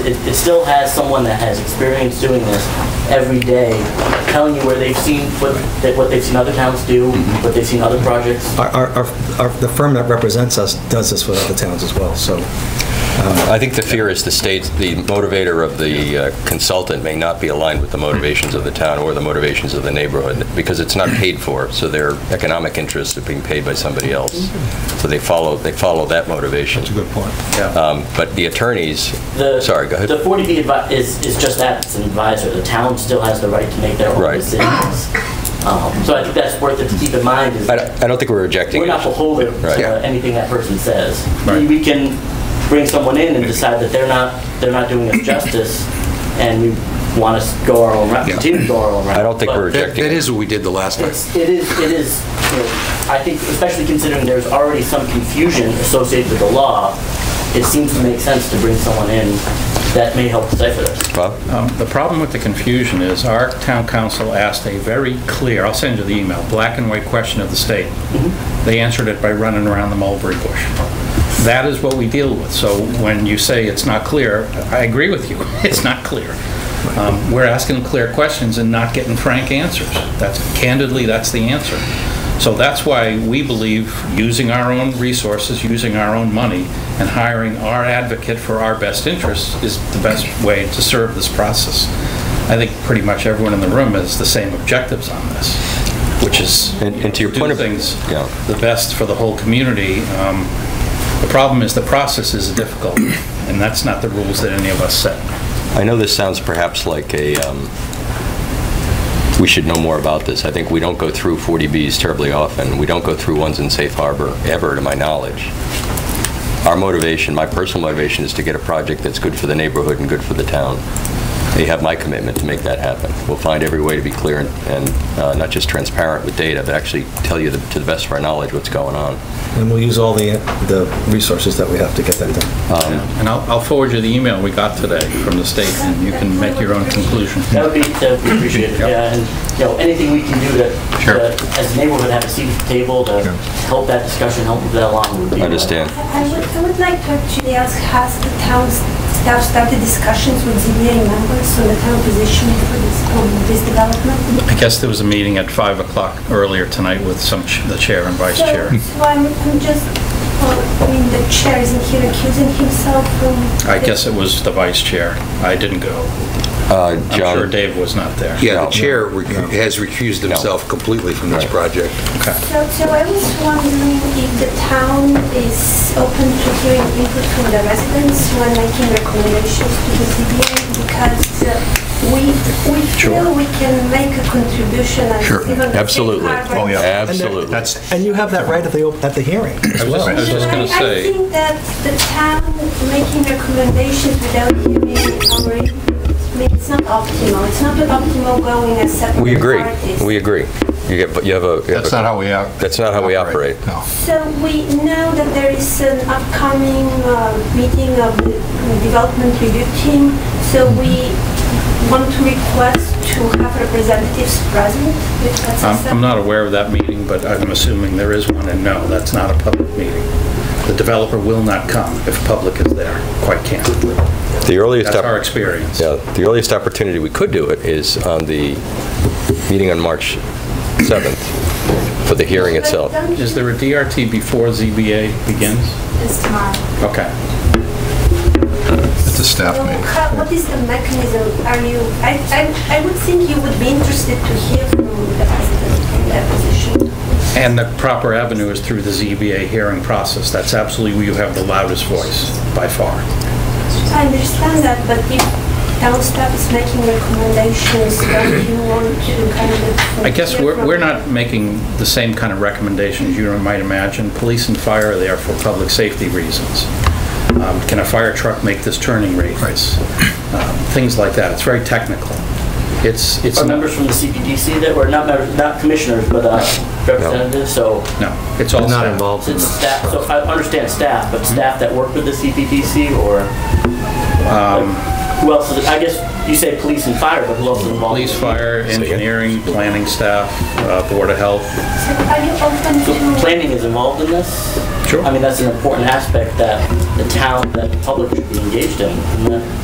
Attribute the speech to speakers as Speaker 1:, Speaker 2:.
Speaker 1: it, it still has someone that has experience doing this every day, telling you where they've seen, what, that- what they've seen other towns do,
Speaker 2: Mm-hmm.
Speaker 1: what they've seen other projects.
Speaker 3: Our- Our, our- our, the firm that represents us does this with other towns as well, so. um,
Speaker 2: I think the fear is the state, the motivator of the uh, consultant may not be aligned with the motivations of the town or the motivations of the neighborhood, because it's not paid for, so their economic interests are being paid by somebody else. So they follow, they follow that motivation.
Speaker 3: good point.
Speaker 2: Um, But the attorneys,
Speaker 1: The-
Speaker 2: sorry, go
Speaker 1: The
Speaker 2: ahead.
Speaker 1: 40B advi- is, is just that, it's an advisor. The town still has the right to make their own
Speaker 2: Right.
Speaker 1: decisions. Um, So I think that's worth it to keep in mind is
Speaker 2: I
Speaker 1: that
Speaker 2: don't- I don't think we're rejecting
Speaker 1: we're
Speaker 2: it.
Speaker 1: not beholden
Speaker 2: Right.
Speaker 1: to anything that person says.
Speaker 4: Right.
Speaker 1: We we can bring someone in and decide that they're not, they're not doing us justice, and we want to go our own route,
Speaker 4: Yeah.
Speaker 1: continue to go our own route.
Speaker 2: I don't think
Speaker 1: But
Speaker 2: we're
Speaker 4: That
Speaker 2: rejecting
Speaker 4: that
Speaker 2: it.
Speaker 4: is what we did the last time.
Speaker 1: It's, it is, it is, you know, I think, especially considering there's already some confusion associated with the law, it seems to make sense to bring someone in that may help decipher this.
Speaker 2: Bob?
Speaker 5: Um, The problem with the confusion is our town council asked a very clear, I'll send you the email, black and white question of the state. They answered it by running around the mulberry bush. That is what we deal with. So when you say it's not clear, I agree with you. It's not clear. Um, We're asking clear questions and not getting frank answers. That's candidly, that's the answer. So that's why we believe using our own resources, using our own money, and hiring our advocate for our best interests is the best way to serve this process. I think pretty much everyone in the room has the same objectives on this, which is
Speaker 2: And- and to your point
Speaker 5: do
Speaker 2: of-
Speaker 5: things
Speaker 2: Yeah.
Speaker 5: the best for the whole community. Um, The problem is the process is difficult, and that's not the rules that any of us set.
Speaker 2: I know this sounds perhaps like a, um, we should know more about this. I think we don't go through 40Bs terribly often. We don't go through ones in Safe Harbor, ever, to my knowledge. Our motivation, my personal motivation, is to get a project that's good for the neighborhood and good for the town. They have my commitment to make that happen. We'll find every way to be clear and- and uh, not just transparent with data, but actually tell you, the- to the best of our knowledge, what's going on.
Speaker 3: And we'll use all the, the resources that we have to get that done.
Speaker 2: Um,
Speaker 5: And I'll I'll forward you the email we got today from the state, and you can make your own conclusion.
Speaker 1: That would be, that would be appreciated, yeah, and, you know, anything we can do to,
Speaker 5: Sure.
Speaker 1: to, as a neighborhood, have a seat at the table to help that discussion, help move that along would be. uh,
Speaker 2: Understand?
Speaker 6: I would, I would like to actually ask, has the town staff started discussions with ZBA members on the town position for this, on this development?
Speaker 5: I guess there was a meeting at 5 o'clock earlier tonight with some, ch- the chair and vice
Speaker 6: So-
Speaker 5: chair.
Speaker 6: So I'm, I'm just, uh, I mean, the chair isn't here accusing himself from...
Speaker 5: I guess it was the vice chair. I didn't go.
Speaker 2: Uh,
Speaker 5: I'm
Speaker 2: John?
Speaker 5: sure Dave was not there.
Speaker 4: Yeah,
Speaker 2: No.
Speaker 4: the chair rec- has recused himself completely from this
Speaker 2: Right.
Speaker 4: project.
Speaker 6: So, so I was wondering if the town is open to hearing input from the residents when making recommendations to the ZBA because uh, we, we feel we can make a contribution and
Speaker 4: Sure,
Speaker 6: even the
Speaker 2: Absolutely.
Speaker 6: safe
Speaker 5: Oh,
Speaker 6: harbor-
Speaker 2: Absolutely.
Speaker 3: And you have that right at the, op- at the hearing as well.
Speaker 5: I was just
Speaker 6: Yeah,
Speaker 5: gonna
Speaker 6: I-
Speaker 5: say-
Speaker 6: I think that the town making recommendations without hearing our input, I mean, it's not optimal. It's not optimal going as separate
Speaker 2: We agree.
Speaker 6: parties.
Speaker 2: We agree. You have, you have a... you have a-
Speaker 4: how we operate.
Speaker 2: That's not how we operate.
Speaker 4: No.
Speaker 6: So we know that there is an upcoming uh, meeting of the development review team, so we want to request to have representatives present, if that's
Speaker 5: I'm I'm
Speaker 6: acceptable.
Speaker 5: not aware of that meeting, but I'm assuming there is one, and no, that's not a public meeting. The developer will not come if public is there, quite candidly.
Speaker 2: The earliest...
Speaker 5: That's
Speaker 2: opp-
Speaker 5: our experience.
Speaker 2: Yeah, the earliest opportunity we could do it is on the meeting on March 7th for the hearing itself.
Speaker 6: But don't
Speaker 5: Is there a DRT before ZBA begins?
Speaker 6: It's tomorrow.
Speaker 5: Okay.
Speaker 4: It's a staff
Speaker 6: So how- What is the mechanism? Are you, I, I I would think you would be interested to hear from the president in that position.
Speaker 5: And the proper avenue is through the ZBA hearing process. That's absolutely where you have the loudest voice, by far.
Speaker 6: I understand that, but if town staff is making recommendations, don't you want to kind of...
Speaker 5: I guess
Speaker 6: hear
Speaker 5: we're
Speaker 6: from
Speaker 5: we're
Speaker 6: them?
Speaker 5: not making the same kind of recommendations you might imagine. Police and fire are there for public safety reasons. Um, Can a fire truck make this turning radius? Um, Things like that. It's very technical. It's, it's
Speaker 1: Are
Speaker 5: not,
Speaker 1: members from the CPDC that were, not members, not commissioners, but uh, representatives, so
Speaker 5: no, it's all
Speaker 3: Not
Speaker 5: staff.
Speaker 3: involved in
Speaker 1: it's
Speaker 3: this.
Speaker 1: staff, so I understand staff, but
Speaker 5: Hmm?
Speaker 1: staff that work with the CPDC or?
Speaker 5: Um,
Speaker 1: Who else is, I guess you say police and fire, but who else is involved?
Speaker 5: Police, fire, engineering, planning staff, uh, Board of Health.
Speaker 6: So Are you open
Speaker 1: So
Speaker 6: to...
Speaker 1: planning is involved in this?
Speaker 5: Sure.
Speaker 1: I mean, that's an important aspect that the town, that the public should be engaged in. isn't it?